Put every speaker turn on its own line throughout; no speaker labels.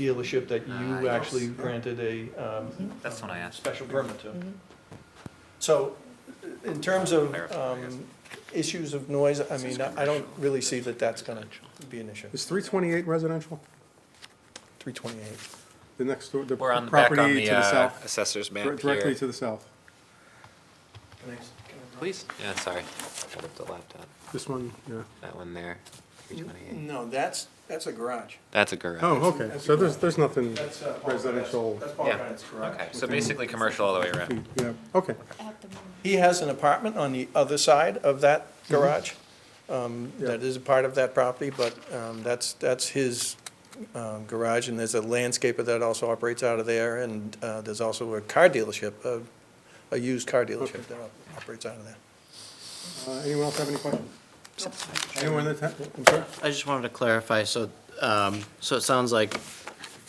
dealership that
Ah,
you
yes. Mm-hmm.
actually granted a, um,
That's what I asked.
special permit to.
Mm-hmm.
So, in terms of,
Clarify, I guess.
um, issues of noise, I mean, I I don't really see that that's gonna be an issue,
Is 328 residential?
three twenty-eight.
The next, door- the
We're on the back on
property to
the
the
uh,
south,
assessor's
dir-
map
directly
here.
to the south.
Please, yeah, sorry, hold up the laptop,
This one, yeah.
that one there, three twenty-eight,
No, that's, that's a garage.
that's a garage.
Oh, okay, so there's, there's nothing
uh,
residential.
That's
Yeah. Ryan's Okay, so basically commercial all the way around.
Yeah, okay.
At the moment.
He has an apartment on the other side of that garage, um, that is a part of that property, but, um, that's, that's his, um, garage, and there's a landscaper that also operates out of there, and, uh, there's also a car dealership, a, a used car dealership that op- operates out of there.
Uh, Anyone else have any questions? Anyone in the, ta- I'm sorry?
I just wanted to clarify, so, um, so it sounds like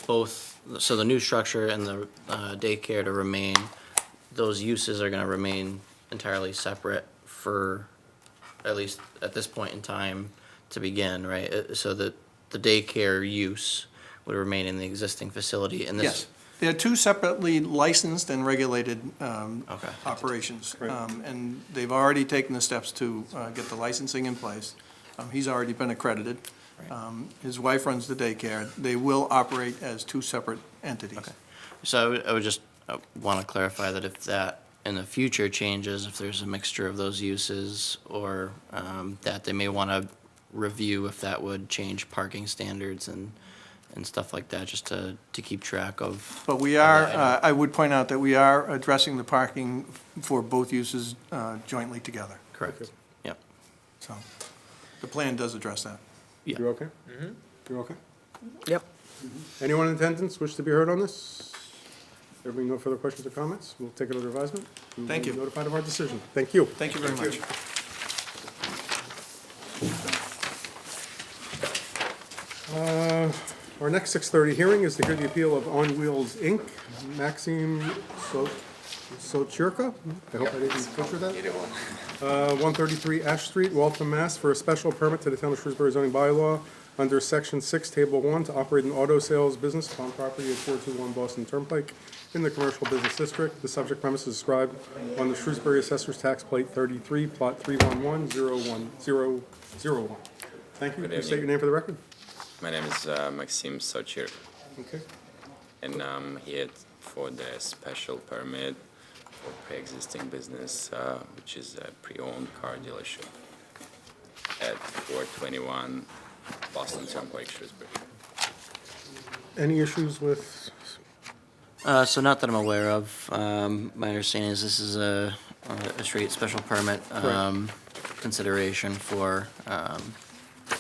both, so the new structure and the uh, daycare to remain, those uses are gonna remain entirely separate for, at least at this point in time, to begin, right? Uh, So that the daycare use would remain in the existing facility and this.
Yes, they're two separately licensed and regulated um,
Okay.
operations.
Right.
Um, And they've already taken the steps to uh, get the licensing in place. Um, He's already been accredited. Um, His wife runs the daycare. They will operate as two separate entities.
Okay. So I would, I would just want to clarify that if that in the future changes, if there's a mixture of those uses or um, that they may want to review if that would change parking standards and, and stuff like that, just to, to keep track of.
But we are, uh, I would point out that we are addressing the parking for both uses uh, jointly together.
Correct. Yep.
So the plan does address that.
Yeah.
You okay?
Mm-hmm.
You're okay?
Yep.
Anyone in attendance wish to be heard on this? There being no further questions or comments, we'll take it under advisement. and
Thank
we'll
you.
be Notified of our decision. Thank you.
Thank you very much.
Uh, Our next 6:30 hearing is to hear the appeal of On Wheels, Inc., Maxim So- Sochirka. I hope I didn't butcher that. Uh, 133 Ash Street, Waltham, Mass., for a special permit to the Town of Shrewsbury zoning bylaw under Section 6, Table 1, to operate an auto sales business on property at 421 Boston Turnpike in the Commercial Business District. The subject premise is described on the Shrewsbury Assessor's Tax Plate 33, Plot 31101001. Thank you.
Good
Please state your
evening.
name for the record.
My name is uh, Maxim Sochir,
Okay.
and I'm here for the special permit for pre-existing business, uh, which is a pre-owned car dealership at 421 Boston Turnpike, Shrewsbury.
Any issues with,
Uh, so not that I'm aware of. Um, my understanding is this is a, a straight special permit, um, consideration for, um,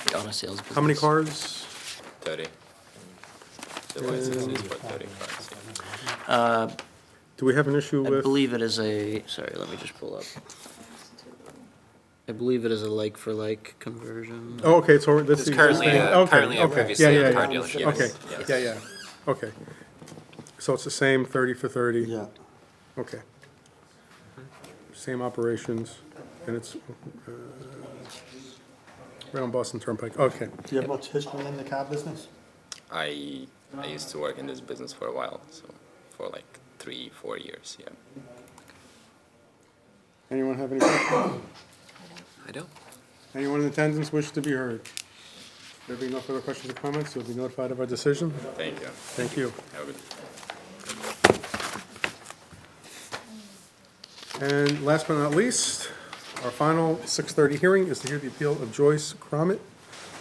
the auto sales business.
how many cars?
30. The license is for 30 cars. yeah.
Do we have an issue
I
with?
believe it is a, sorry, let me just pull up. I believe it is a like for like conversion.
Oh, okay, so this is.
It's currently,
okay,
uh, currently a
okay.
previously
Yeah, yeah,
owned car
yeah.
dealership.
Okay,
Yes.
yeah, yeah, okay. So it's the same thirty for thirty? Yeah. Okay. Same operations, and it's, uh, right on Boston Turnpike, okay.
Do you have much history in the car business?
I, I used to work in this business for a while, so for like three, four years, yeah.
Anyone have any, questions?
I don't.
anyone in attendance wish to be heard? There being no further questions or comments, you'll be notified of our decision,
Thank you.
thank you.
Have a good
And last but not least, our final 6:30 hearing is to hear the appeal of Joyce Cromit,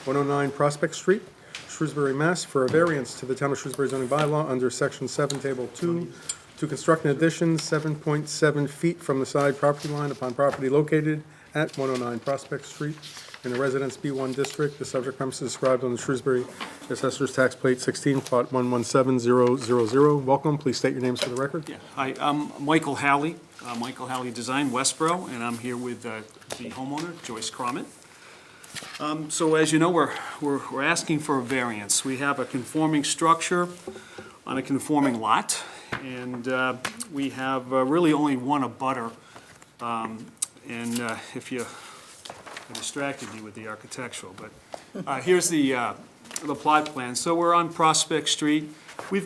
109 Prospect Street, Shrewsbury, Mass., for a variance to the Town of Shrewsbury zoning bylaw under Section 7, Table 2, to construct an addition 7.7 feet from the side property line upon property located at 109 Prospect Street in the Residence B1 District. The subject premise is described on the Shrewsbury Assessor's Tax Plate 16, Plot 117000. Welcome, please state your names for the record.
Yeah, hi, I'm Michael Halley, uh, Michael Halley Design, Westboro, and I'm here with uh, the homeowner, Joyce Cromit. Um, So as you know, we're, we're we're asking for a variance. We have a conforming structure on a conforming lot, and uh, we have uh, really only one abutter. Um, And uh, if you, I distracted you with the architectural, but uh, here's the, uh, the plot plan. So we're on Prospect Street. We've